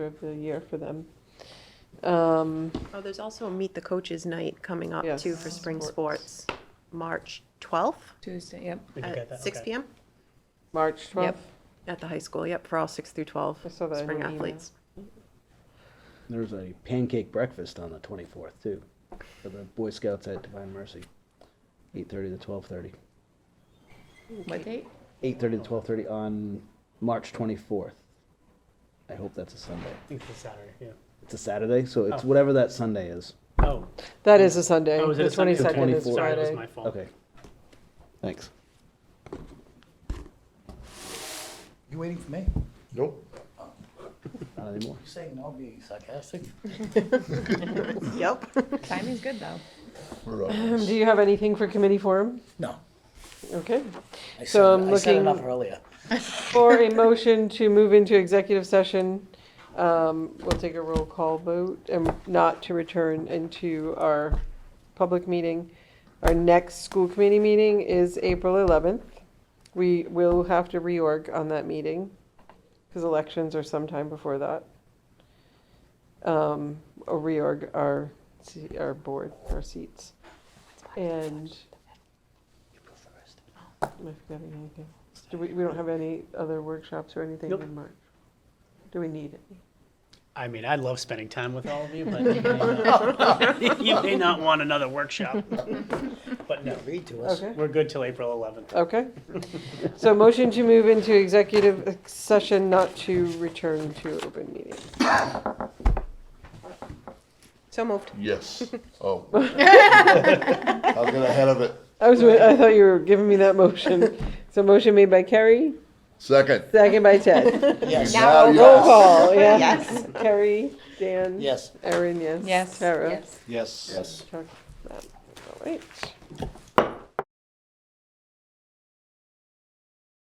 of the year for them. Um, Oh, there's also a Meet the Coaches Night coming up Yes. too for spring sports, March 12th Tuesday, yep. We can get at that, 6 okay. PM March 12th, Yep. at the high school, yep, for all 6 through 12 I saw that in spring your email. athletes. There's a pancake breakfast on the 24th too, for the Boy Scouts at Divine Mercy, 8:30 to 12:30. What date? 8:30 to 12:30 on March 24th. I hope that's a Sunday. I think it's Saturday, yeah. It's a Saturday, so it's Oh. whatever that Sunday is. Oh, That is a Sunday. Oh, is it The a Sunday? The 22nd is 24th. sorry, it was Friday. my fault. Okay. Thanks. You waiting for me? Nope. Not anymore. You saying no, being sarcastic? Yep. Timing's good, though. We're up. Um, Do you have anything for committee forum? No. Okay. I So said- I'm I said looking- enough earlier. For a motion to move into executive session, um, we'll take a roll call vote and not to return into our public meeting. Our next school committee meeting is April 11th. We will have to reorg on that meeting because elections are sometime before that. Um, Or reorg our, se- our board, our seats. And. Am I forgetting anything? Do we, we don't have any other workshops or anything Nope. in March? Do we need it? I mean, I love spending time with all of you, but you may not- you may not want another workshop. But no, Read to us. Okay, we're good till April 11th. okay. So motion to move into executive session not to return to open meeting. So moved. Yes. Oh. I was getting ahead of it. I was, wa- I thought you were giving me that motion. So motion made by Carrie, Second. second by Ted. Yes, Now Roll yes. call, yes. Carrie, Dan. yes. Erin, yes. Yes. Tara. Yes. Yes. Yes. Chuck, Matt. All right.